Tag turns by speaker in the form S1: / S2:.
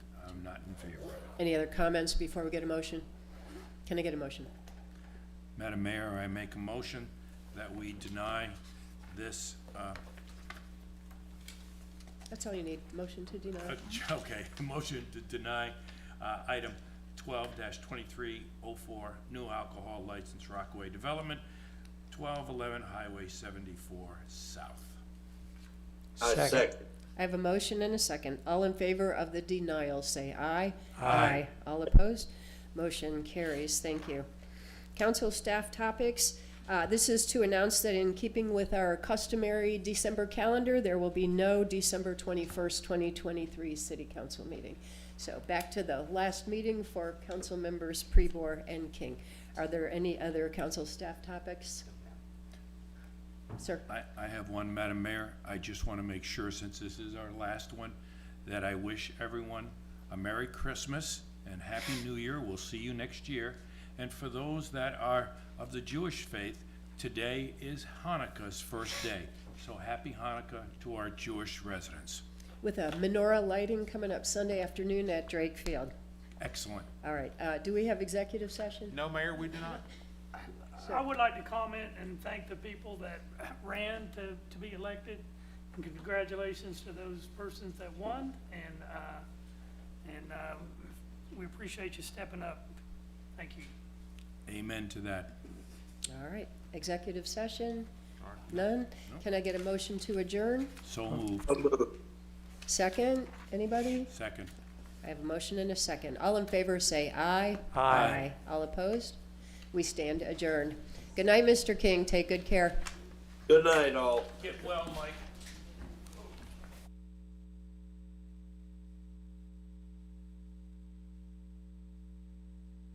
S1: Any other comments before we get a motion? Can I get a motion?
S2: Madam Mayor, I make a motion that we deny this, uh,
S1: That's all you need, motion to deny.
S2: okay, motion to deny uh, item twelve twenty-three oh four, new alcohol license Rockaway Development, twelve eleven Highway seventy-four South.
S3: I
S4: Second.
S3: second.
S1: I have a motion and a second. All in favor of the denial, say aye.
S2: Aye.
S1: All opposed? Motion carries. Thank you. Council staff topics. Uh, This is to announce that in keeping with our customary December calendar, there will be no December 21st, 2023 city council meeting. So back to the last meeting for council members Prebor and King. Are there any other council staff topics? Sir?
S2: I, I have one, Madam Mayor. I just want to make sure, since this is our last one, that I wish everyone a Merry Christmas and Happy New Year. We'll see you next year. And for those that are of the Jewish faith, today is Hanukkah's first day. So happy Hanukkah to our Jewish residents.
S1: With a menorah lighting coming up Sunday afternoon at Drake Field.
S2: Excellent.
S1: All right, uh, do we have executive session?
S5: No, Mayor, we do not.
S6: I would like to comment and thank the people that ran to, to be elected. And congratulations to those persons that won, and, uh, and, uh, we appreciate you stepping up. Thank you.
S2: Amen to that.
S1: All right, executive session? None? Can I get a motion to adjourn?
S2: So moved.
S3: I'll move.
S1: Second, anybody?
S2: Second.
S1: I have a motion and a second. All in favor, say aye.
S4: Aye.
S1: All opposed? We stand adjourned. Good night, Mr. King, take good care.
S3: Good night, all.
S2: Get well, Mike.